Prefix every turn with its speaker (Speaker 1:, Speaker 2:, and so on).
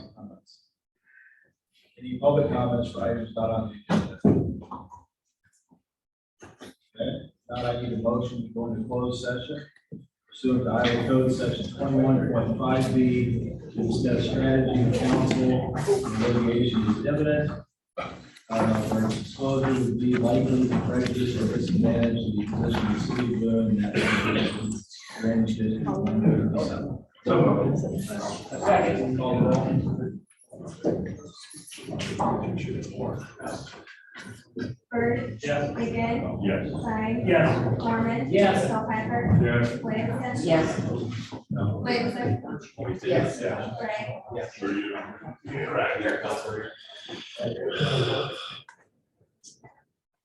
Speaker 1: Any public comments for items not on the agenda? Okay, now I need a motion to go into closed session pursuant to Iowa Code Section twenty-one point five B to discuss strategy of counsel and litigation is evident. Uh, where disclosure would be likely to prejudice or disadvantage to the position of the city of Boone in that litigation. Range district one hundred and seven. Call the roll.
Speaker 2: Bird.
Speaker 3: Yes.
Speaker 2: McGinn.
Speaker 3: Yes.
Speaker 2: Stein.
Speaker 3: Yes.
Speaker 2: Mormon.
Speaker 4: Yes.
Speaker 2: Hilheimer.
Speaker 3: Yes.
Speaker 2: Williamson.
Speaker 4: Yes.
Speaker 2: Williamson.
Speaker 4: Yes.
Speaker 2: Gray.
Speaker 3: For you. Right.